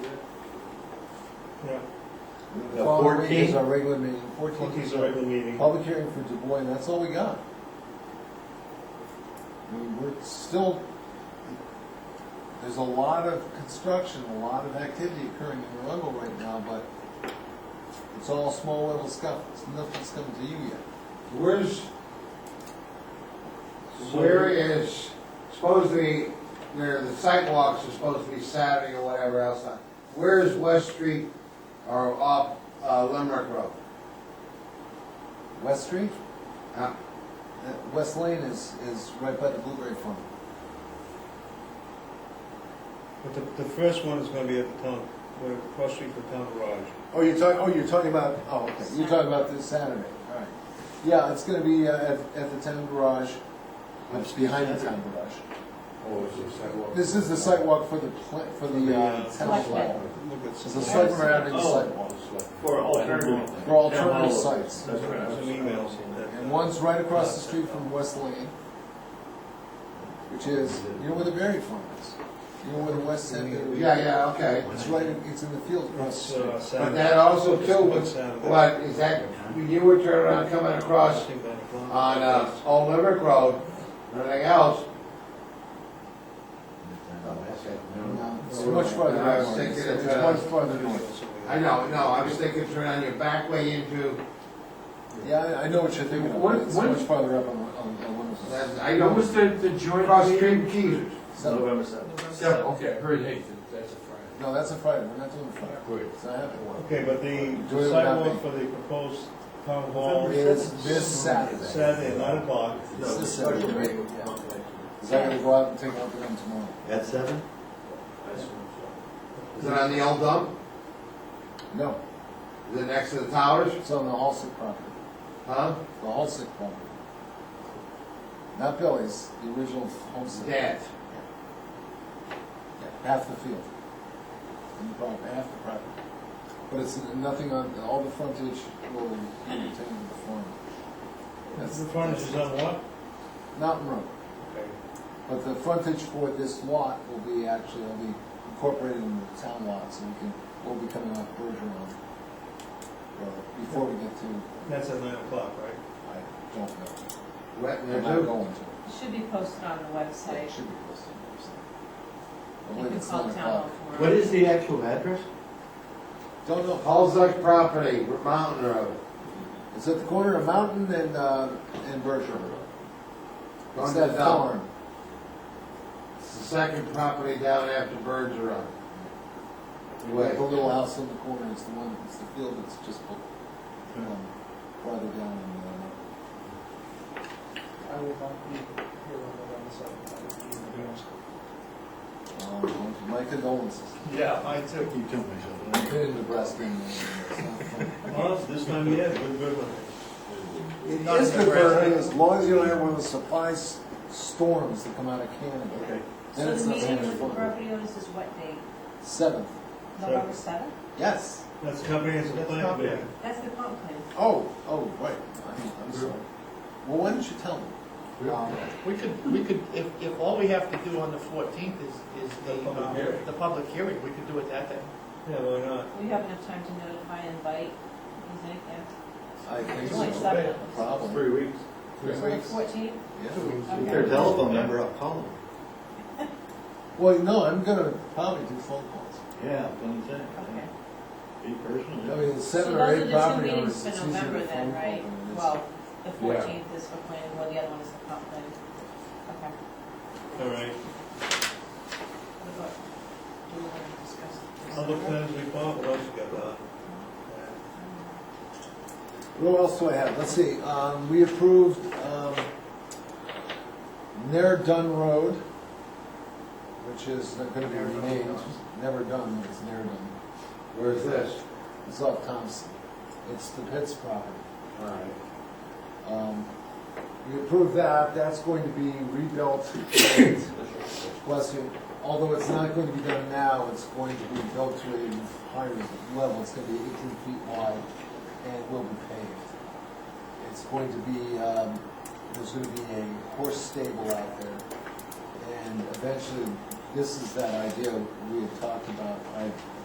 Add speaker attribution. Speaker 1: Yeah,
Speaker 2: The
Speaker 3: following week is
Speaker 2: 14th?
Speaker 3: our regular meeting, fourteenth
Speaker 1: fourteenth
Speaker 3: is
Speaker 1: is a
Speaker 3: our
Speaker 1: regular meeting.
Speaker 3: public hearing for Dubois, and that's all we got. I mean, we're still, there's a lot of construction, a lot of activity occurring in Arundel right now, but it's all small level stuff, It's- nothing's come to you yet.
Speaker 4: Where's, where is, supposedly, there, the sidewalks are supposed to be Saturday or whatever else. uh, Where is West Street or off uh, Limerick Road?
Speaker 3: West Street,
Speaker 4: Huh?
Speaker 3: uh, West Lane is, is right by the Blueberry Farm.
Speaker 1: But the, the first one is gonna be at the town, where, across street from town garage.
Speaker 3: Oh, you're talking, oh, you're talking about, oh, okay, you're talking about this Saturday, all right. Yeah, it's gonna be uh, at, at the town garage, it's behind the town garage.
Speaker 2: Or is it sidewalk?
Speaker 3: This is the sidewalk for the, pla- for the uh, town flag.
Speaker 1: Look at
Speaker 3: It's a
Speaker 1: some.
Speaker 3: site surrounding
Speaker 5: Oh.
Speaker 3: sidewalk
Speaker 5: For alternative.
Speaker 3: for alternative sites.
Speaker 5: That's right.
Speaker 1: Some emails in that.
Speaker 3: And one's right across the street from West Lane, which is, you know where the berry farm is? You know where the west end is?
Speaker 4: Yeah, yeah, okay.
Speaker 3: It's right, in- it's in the field across
Speaker 1: It's,
Speaker 3: the street.
Speaker 1: uh,
Speaker 4: But
Speaker 1: Saturday.
Speaker 4: that also
Speaker 1: It's
Speaker 4: too,
Speaker 1: one
Speaker 4: was-
Speaker 1: Saturday.
Speaker 4: what, is that, when you were turning around coming across
Speaker 1: Think nine o'clock.
Speaker 4: on, uh, Old Limerick Road, or anything else?
Speaker 3: No, It's much farther
Speaker 4: I was
Speaker 3: north,
Speaker 4: thinking
Speaker 3: it's
Speaker 4: it's,
Speaker 3: it's
Speaker 4: uh,
Speaker 3: much farther north.
Speaker 4: I know, no, I was thinking turn on your back way into,
Speaker 3: Yeah, I- I know what you're thinking of, but
Speaker 6: When-
Speaker 3: it's
Speaker 6: when-
Speaker 3: much farther up on, on, on one of those.
Speaker 4: that's- I
Speaker 6: What
Speaker 4: know,
Speaker 6: was the, the joint
Speaker 4: across
Speaker 6: meeting?
Speaker 4: Street Keys.
Speaker 3: So-
Speaker 5: November seventh.
Speaker 6: Yeah, okay, I heard, hey, that's a Friday.
Speaker 3: No, that's a Friday, we're not doing a Friday. So I have one.
Speaker 1: Okay, but
Speaker 3: Do it
Speaker 1: the
Speaker 3: without
Speaker 1: sidewalk
Speaker 3: me.
Speaker 1: for the proposed town hall
Speaker 3: It's this Saturday.
Speaker 1: Saturday at nine o'clock.
Speaker 3: It's this Saturday, right? Is I gonna go out and take out the gun tomorrow?
Speaker 2: At seven?
Speaker 4: Is it on the old dump?
Speaker 3: No,
Speaker 4: Is it next to the towers?
Speaker 3: it's on the Halsick property,
Speaker 4: Huh?
Speaker 3: the Halsick property. Not Billy's, the original Halsick.
Speaker 4: Dad's.
Speaker 3: Half the field. And the property, half the property. But it's nothing on, all the frontage will be retained in the farm. That's
Speaker 1: The furniture is on what?
Speaker 3: Mountain Road.
Speaker 1: Okay.
Speaker 3: But the frontage for this lot will be actually, will be incorporated in the town lot, so we can, we'll be coming off Bergeron. Road Before we get to,
Speaker 1: That's at nine o'clock, right?
Speaker 3: I don't know,
Speaker 4: Wet in there
Speaker 3: I'm not
Speaker 4: too?
Speaker 3: going to.
Speaker 7: Should be posted on the website.
Speaker 3: It should be posted on the website. I
Speaker 7: You
Speaker 3: believe
Speaker 7: can
Speaker 3: it's
Speaker 7: call
Speaker 3: nine
Speaker 7: town hall
Speaker 3: o'clock.
Speaker 7: for
Speaker 2: What
Speaker 7: it.
Speaker 2: is the actual address?
Speaker 3: Don't know,
Speaker 4: Paul's Duck property, Mountain Road.
Speaker 3: it's at the corner of Mountain and, uh, and Bergeron. It's
Speaker 4: Going to
Speaker 3: that
Speaker 4: the
Speaker 3: farm.
Speaker 4: It's the second property down after Birds are on. Wait.
Speaker 3: The little house on the corner, it's the one, it's the field that's just, built, um, farther down in, uh,
Speaker 8: I will not be here on November seventh, I will be in the house.
Speaker 3: Um, My condolences.
Speaker 5: Yeah, I took you too
Speaker 3: I've
Speaker 5: much.
Speaker 3: been in Nebraska and it's not fun.
Speaker 1: Well, this time, yeah, good, good one.
Speaker 3: It
Speaker 5: Not
Speaker 3: is
Speaker 5: in
Speaker 3: good for
Speaker 5: Nebraska.
Speaker 3: everything as long as you don't have one of those supply s- storms that come out of Canada. Then
Speaker 7: So
Speaker 3: it's
Speaker 7: the
Speaker 3: not so
Speaker 7: meeting
Speaker 3: much
Speaker 7: with the
Speaker 3: fun.
Speaker 7: property owners is what date?
Speaker 3: Seventh,
Speaker 7: November seventh?
Speaker 3: yes.
Speaker 1: That's comprehensive plan, yeah.
Speaker 7: That's the comp plan.
Speaker 3: Oh, oh, right, I'm, I'm sorry. Well, why didn't you tell me? Um,
Speaker 8: We could, we could, if, if all we have to do on the fourteenth is, is the,
Speaker 1: public
Speaker 8: uh,
Speaker 1: hearing.
Speaker 8: the public hearing, we could do it that day.
Speaker 1: Yeah, why not?
Speaker 7: We have enough time to notify and invite, is it, yeah?
Speaker 3: I think
Speaker 7: It's
Speaker 3: so.
Speaker 7: only seven of us.
Speaker 3: Problem.
Speaker 2: Three weeks.
Speaker 3: Three
Speaker 7: So the
Speaker 3: weeks.
Speaker 7: fourteenth?
Speaker 3: Yeah.
Speaker 2: Their telephone number, I'll call them.
Speaker 3: Well, no, I'm gonna probably do phone calls.
Speaker 2: Yeah, I'm saying.
Speaker 7: Okay.
Speaker 2: Be
Speaker 3: I
Speaker 2: personal.
Speaker 3: mean,
Speaker 7: So
Speaker 3: seven or
Speaker 7: those
Speaker 3: eight
Speaker 7: are the two
Speaker 3: property
Speaker 7: meetings
Speaker 3: owners,
Speaker 7: for
Speaker 3: it's easier to
Speaker 7: November
Speaker 3: phone
Speaker 7: then,
Speaker 3: call
Speaker 7: right?
Speaker 3: than it is.
Speaker 7: Well, the fourteenth is for planning, well, the other one is the comp plan. Okay.
Speaker 1: All right,
Speaker 7: What about, do we want to discuss? this?
Speaker 1: public plans report, what else you got, Don?
Speaker 3: What else do I have? Let's see, um, we approved, um, Ne'er Done Road, which is not gonna be renamed, Never Done, it's Ne'er Done.
Speaker 4: Where's this?
Speaker 3: It's off Thompson. It's the Pitts property.
Speaker 4: All right.
Speaker 3: Um, We approved that, that's going to be rebuilt, and, bless you, although it's not going to be done now, it's going to be built to a higher level, it's gonna be eighteen feet wide, and it will be paved. It's going to be, um, there's gonna be a horse stable out there, and eventually, this is that idea we had talked about, I